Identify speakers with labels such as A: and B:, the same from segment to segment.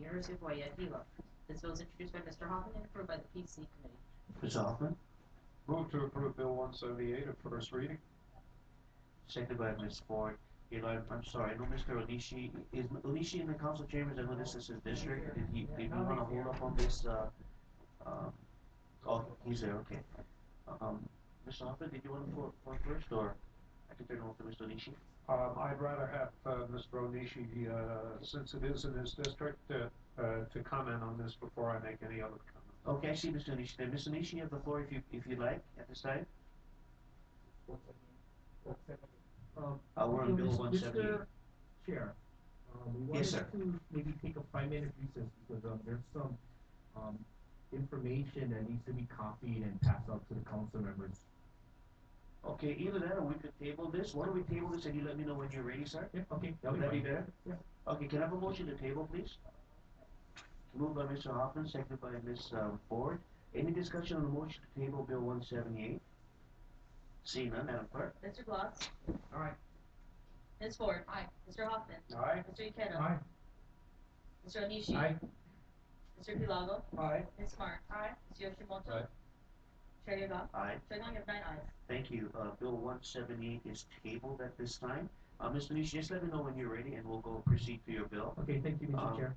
A: University of Hawaii at Hilo. This bill is introduced by Mr. Hoffman and approved by the PC Committee.
B: Mr. Hoffman,
C: Move to approve Bill 178 at first reading.
B: seconded by Ms. Ford. You know, I'm- I'm sorry, I know Mr. Alishi, is Alishi in the council chambers, I know this is his district, did he, did we wanna hold up on this, uh, uh, oh, he's there, okay. Um, Mr. Hoffman, did you wanna for, for first, or I can turn it over to Mr. Alishi?
C: Um, I'd rather have uh, Mr. Onishi, uh, since it is in his district, uh, uh, to comment on this before I make any other comment.
B: Okay, I see Mr. Nishi there. Mr. Nishi, you have the floor if you, if you like, at this time.
D: Uh, Um,
B: Uh, we're on
D: so
B: Bill
D: Mr.
B: 170.
D: Mr. Chair, um, we
B: Yes,
D: wanted
B: sir.
D: to maybe take a five-minute recess because, um, there's some, um, information that needs to be copied and passed out to the council members.
B: Okay, either that or we could table this. Why don't we table this and you let me know when you're ready, sir?
D: Yeah, okay, that'll
B: Would that be
D: be fine.
B: better?
D: Yeah.
B: Okay, can I have a motion to table, please? Moved by Mr. Hoffman, seconded by Ms. uh, Ford. Any discussion on the motion to table Bill 178? Seeing none, Madam Clerk.
A: Mr. Gloss?
D: Aye.
A: Ms. Ford? Aye. Mr. Hoffman?
C: Aye.
A: Mr. Ikeda?
D: Aye.
A: Mr. Onishi?
D: Aye.
A: Mr. Pilago?
D: Aye.
A: Ms. Smart? Aye. Mr. Yoshimoto?
C: Aye.
A: Chair Yuga?
B: Aye.
A: So now you have nine ayes.
B: Thank you. Uh, Bill 178 is tabled at this time. Uh, Mr. Nishi, just let me know when you're ready and we'll go proceed to your bill.
D: Okay, thank you,
B: Um,
D: Mr. Chair.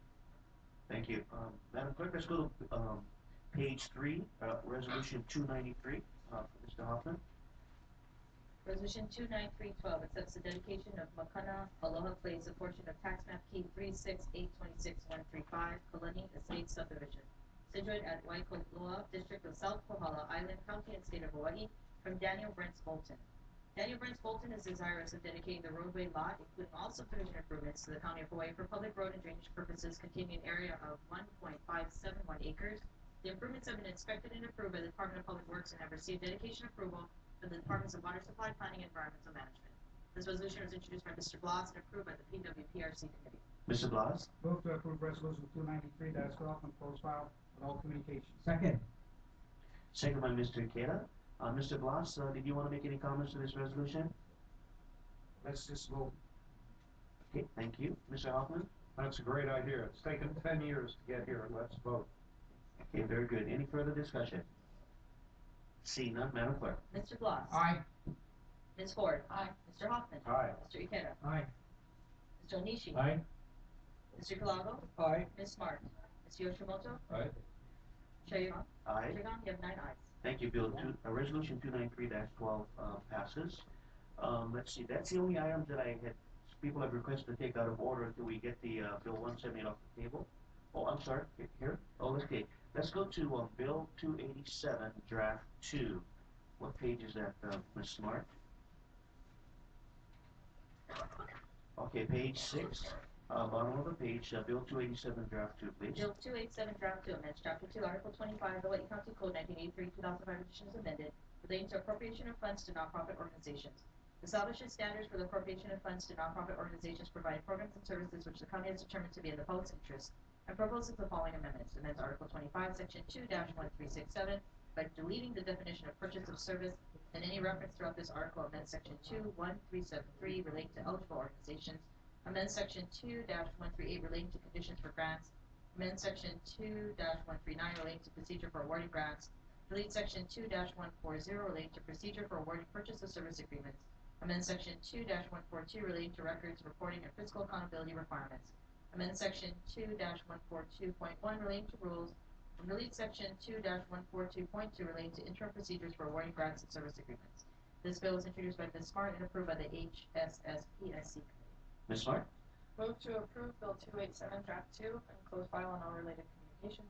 B: Thank you. Um, Madam Clerk, let's go to, um, page three, uh, resolution two ninety-three, uh, for Mr. Hoffman.
A: Resolution two nine three twelve accepts the dedication of Makana Aloha Place, a portion of tax map key three six eight twenty-six one three five, Kalani Estate subdivision, situated at Waikoloa, District of South Kohala Island, County and State of Hawaii, from Daniel Brents Bolton. Daniel Brents Bolton is desirous of dedicating the roadway lot, including all subdivision improvements to the County of Hawaii for public road and drainage purposes containing an area of one point five seven one acres. The improvements have been inspected and approved by the Department of Public Works and have received dedication approval for the Departments of Water Supply, Planning, and Environmental Management. This resolution was introduced by Mr. Blas and approved by the PWPRC Committee.
B: Mr. Blas?
E: Move to approve resolution two ninety-three that's twelve and close file with all communications.
D: Second.
B: Second by Mr. Ikeda. Uh, Mr. Blas, uh, did you want to make any comments to this resolution?
E: Let's just vote.
B: Okay, thank you. Mr. Hoffman?
C: That's a great idea. It's taken 10 years to get here. Let's vote.
B: Okay, very good. Any further discussion? Seeing none, Madam Clerk.
A: Mr. Blas?
E: Aye.
A: Ms. Ford? Aye. Mr. Hoffman?
C: Aye.
A: Mr. Ikeda?
E: Aye.
A: Mr. Onishi?
D: Aye.
A: Mr. Kalago?
E: Aye.
A: Ms. Smart? Mr. Yoshimoto?
C: Aye.
A: Chair Yuan?
B: Aye.
A: Chair Yuan, you have nine ayes.
B: Thank you, Bill. Two, uh, resolution two nine three twelve, uh, passes. Um, let's see, that's the only item that I had, people have requested to take out of order until we get the, uh, Bill one seventy off the table. Oh, I'm sorry, he- here, oh, okay, let's go to, uh, Bill two eighty-seven, draft two. What page is that, uh, Ms. Smart? Okay, page six, uh, bottom of the page, uh, Bill two eighty-seven, draft two, please.
A: Bill two eight seven draft two amendments, chapter two, article twenty-five, the White County Code nineteen eighty-three, two thousand five editions amended, relating to appropriation of funds to nonprofit organizations. Establishes standards for the appropriation of funds to nonprofit organizations providing programs and services which the county has determined to be in the public's interest, and proposes the following amendments, amends article twenty-five, section two one three six seven, by deleting the definition of purchase of service, and any reference throughout this article amends section two one three seven three relating to eligible organizations, amends section two one three eight relating to conditions for grants, amend section two one three nine relating to procedure for awarding grants, delete section two one four zero relating to procedure for awarding purchase of service agreements, amend section two one four two relating to records, reporting, and fiscal accountability requirements, amend section two one four two point one relating to rules, and delete section two one four two point two relating to interim procedures for awarding grants and service agreements. This bill was introduced by Ms. Smart and approved by the HSSPSC Committee.
B: Ms. Smart?
F: Move to approve Bill 287, Draft 2, and close file on all related communications.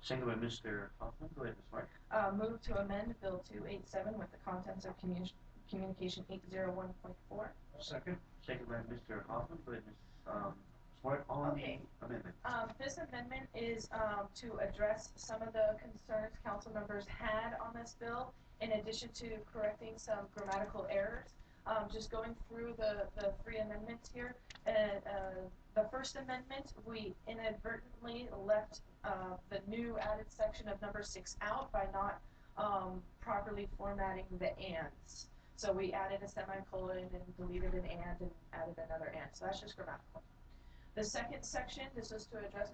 B: Second by Mr. Hoffman, go ahead, Ms. Mark.
F: Uh, Move to amend Bill 287 with the contents of commu- Communication 801.4.
B: Second. Second by Mr. Hoffman, go ahead, Ms. Um, Smart, on the
F: Okay.
B: amendment.
F: Um, This amendment is um, to address some of the concerns council members had on this bill, in addition to correcting some grammatical errors. Um, Just going through the, the three amendments here, uh, uh, the first amendment, we inadvertently left uh, the new added section of number six out by not um, properly formatting the ands. So we added a semicolon and deleted an and and added another and, so that's just grammatical. The second section, this is to address